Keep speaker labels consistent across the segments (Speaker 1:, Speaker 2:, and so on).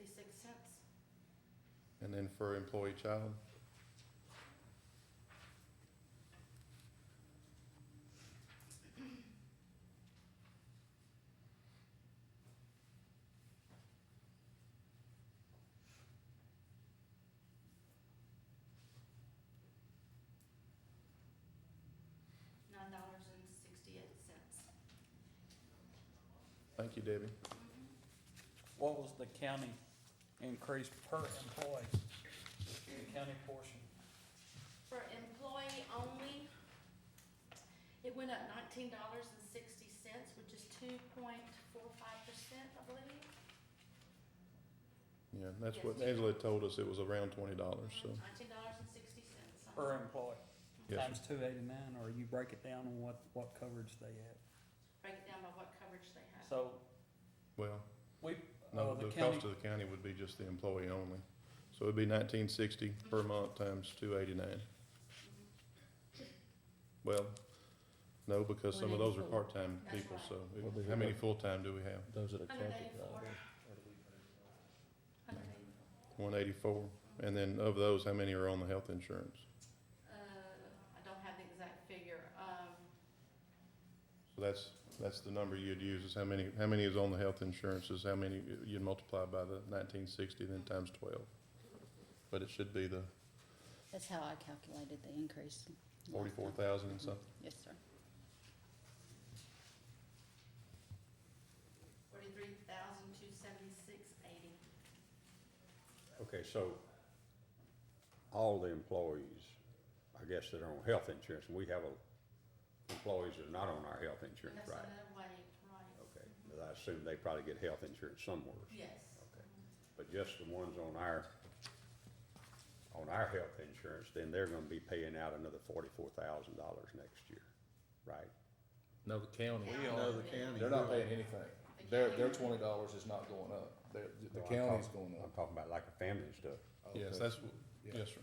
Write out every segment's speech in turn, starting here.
Speaker 1: cents.
Speaker 2: And then for employee child?
Speaker 1: Nine dollars and sixty-eight cents.
Speaker 2: Thank you, Debbie.
Speaker 3: What was the county increase per employee? The county portion?
Speaker 1: For employee only, it went up nineteen dollars and sixty cents, which is two point four five percent, I believe.
Speaker 2: Yeah, that's
Speaker 1: Yes.
Speaker 2: what Angela told us, it was around twenty dollars, so,
Speaker 1: Uh-huh, Nineteen dollars and sixty cents.
Speaker 3: Per employee?
Speaker 2: Yes,
Speaker 3: Times two eighty-nine, or you break it down on what, what coverage they have.
Speaker 1: Break it down by what coverage they have.
Speaker 3: So,
Speaker 2: well,
Speaker 3: we, oh,
Speaker 1: Uh,
Speaker 2: no,
Speaker 3: the
Speaker 2: the
Speaker 3: county,
Speaker 2: cost of the county would be just the employee only. So it'd be nineteen sixty per month times two eighty-nine.
Speaker 1: Mm-hmm.
Speaker 2: Well, no, because some of those are
Speaker 4: 184.
Speaker 2: part-time
Speaker 1: That's
Speaker 2: people,
Speaker 1: right.
Speaker 2: so it-
Speaker 5: Well, they
Speaker 2: how
Speaker 5: have
Speaker 2: many
Speaker 5: a-
Speaker 2: full-time do we have?
Speaker 5: Those are the
Speaker 1: Hundred
Speaker 5: county.
Speaker 1: eighty-four. Hundred eighty,
Speaker 2: One eighty-four, and then of those, how many are on the health insurance?
Speaker 1: uh, I don't have the exact figure, um,
Speaker 2: So that's, that's the number you'd use, is how many, how many is on the health insurance, is how many, you'd multiply by the nineteen sixty, then times twelve. But it should be the
Speaker 4: That's how I calculated the increase.
Speaker 2: forty-four thousand and something.
Speaker 4: Yes, sir.
Speaker 1: forty-three thousand two seventy-six eighty.
Speaker 6: Okay, so all the employees, I guess that are on health insurance, and we have a- employees that are not on our health insurance,
Speaker 1: That's
Speaker 6: right?
Speaker 1: another way, right?
Speaker 6: Okay, but I assume they probably get health insurance somewhere,
Speaker 1: Yes.
Speaker 6: Okay. but just the ones on our, on our health insurance, then they're gonna be paying out another forty-four thousand dollars next year, right?
Speaker 5: No, the county.
Speaker 1: We are. No, the county.
Speaker 5: They're not paying anything. Their, their twenty dollars is not going up. Their, the
Speaker 6: No, I'm
Speaker 5: county's
Speaker 6: talking-
Speaker 5: going
Speaker 6: I'm
Speaker 5: up.
Speaker 6: talking about like a family and stuff.
Speaker 2: Yes,
Speaker 5: Okay.
Speaker 2: that's,
Speaker 5: Yeah.
Speaker 2: yes, sir.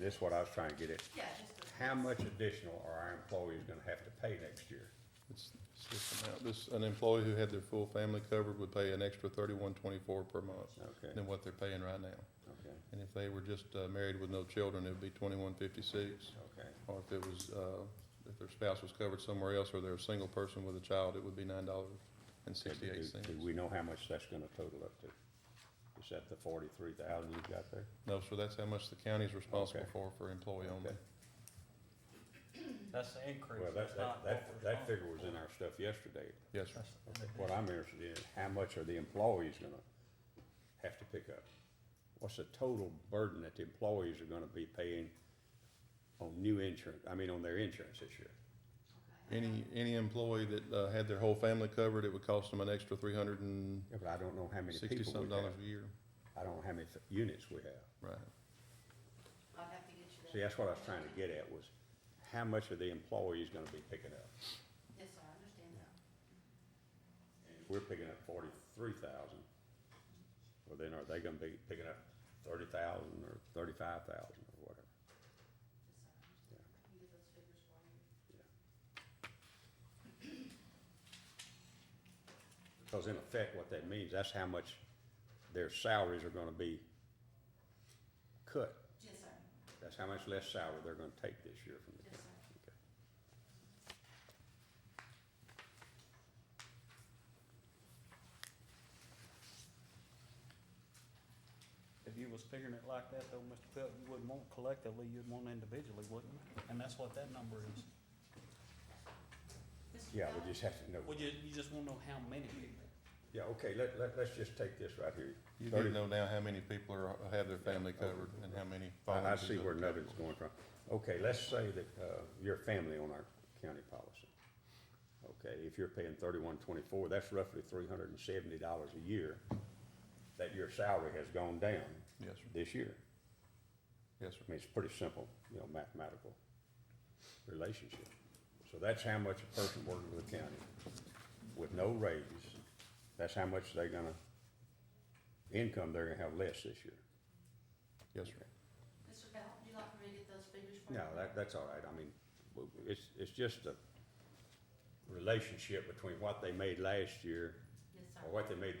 Speaker 6: This is what I was trying to get at.
Speaker 1: Yeah, just the.
Speaker 6: How much additional are our employees gonna have to pay next year?
Speaker 2: It's, it's this amount, this, an employee who had their full family covered would pay an extra thirty-one twenty-four per month
Speaker 6: Okay,
Speaker 2: than what they're paying right now.
Speaker 6: okay,
Speaker 2: And if they were just, uh, married with no children, it'd be twenty-one fifty-six.
Speaker 6: okay.
Speaker 2: Or if it was, uh, if their spouse was covered somewhere else, or they're a single person with a child, it would be nine dollars and sixty-eight
Speaker 6: Do-
Speaker 2: cents.
Speaker 6: Do we know how much that's gonna total up to? Is that the forty-three thousand you've got there?
Speaker 2: No, sir, that's how much the county's responsible
Speaker 6: Okay.
Speaker 2: for, for employee only.
Speaker 6: Okay.
Speaker 3: that's the increase,
Speaker 6: Well,
Speaker 3: that's
Speaker 6: that,
Speaker 3: not
Speaker 6: that,
Speaker 3: what we're
Speaker 6: that, that figure was
Speaker 3: responsible
Speaker 6: in our stuff yesterday.
Speaker 2: Yes, sir.
Speaker 3: for. That's in
Speaker 6: What I'm interested in, is how much are the employees gonna have to pick up? What's the total burden that the employees are gonna be paying on new insurance, I mean, on their insurance this year?
Speaker 1: Okay.
Speaker 2: Any, any employee that, uh, had their whole family covered, it would cost them an extra three hundred and
Speaker 6: Yeah, but I don't know how many people
Speaker 2: sixty-some
Speaker 6: we have.
Speaker 2: dollars a year.
Speaker 6: I don't know how many f- units we have.
Speaker 2: Right.
Speaker 1: I'll have to get you that.
Speaker 6: See, that's what I was trying to get at, was how much are the employees gonna be picking up?
Speaker 1: Yes, sir, I understand that.
Speaker 6: And if we're picking up forty-three thousand, well then are they gonna be picking up thirty thousand or thirty-five thousand or whatever?
Speaker 1: Yes, sir, I understand. I can get those figures for you.
Speaker 6: Because in effect, what that means, that's how much their salaries are gonna be cut.
Speaker 1: Yes, sir,
Speaker 6: That's how much less salary they're gonna take this year from the
Speaker 1: yes,
Speaker 6: county.
Speaker 1: sir.
Speaker 6: Okay.
Speaker 3: If you was figuring it like that though, Mr. Pelt, you wouldn't want collectively, you'd want individually, wouldn't you? And that's what that number is.
Speaker 1: Mr.
Speaker 6: Yeah,
Speaker 1: Bell?
Speaker 6: we just have to know.
Speaker 3: Well, you, you just wanna know how many people.
Speaker 6: Yeah, okay, let, let, let's just take this right here.
Speaker 2: You need to
Speaker 6: Thirty-
Speaker 2: know now how many people are, have their family covered and how many. fall
Speaker 6: I, I
Speaker 2: into
Speaker 6: see
Speaker 2: the
Speaker 6: where
Speaker 2: category.
Speaker 6: nothing's going from. Okay, let's say that, uh, you're a family on our county policy. Okay, if you're paying thirty-one twenty-four, that's roughly three hundred and seventy dollars a year that your salary has gone down
Speaker 2: Yes, sir.
Speaker 6: this year.
Speaker 2: Yes, sir.
Speaker 6: I mean, it's pretty simple, you know, mathematical relationship. So that's how much a person working with the county with no raise, that's how much they're gonna, income they're gonna have less this year.
Speaker 2: Yes, sir.
Speaker 1: Mr. Bell, would you like me to get those figures for you?
Speaker 6: No, that, that's all right, I mean, w- w- it's, it's just the relationship between what they made last year
Speaker 1: Yes, sir.
Speaker 6: or what they made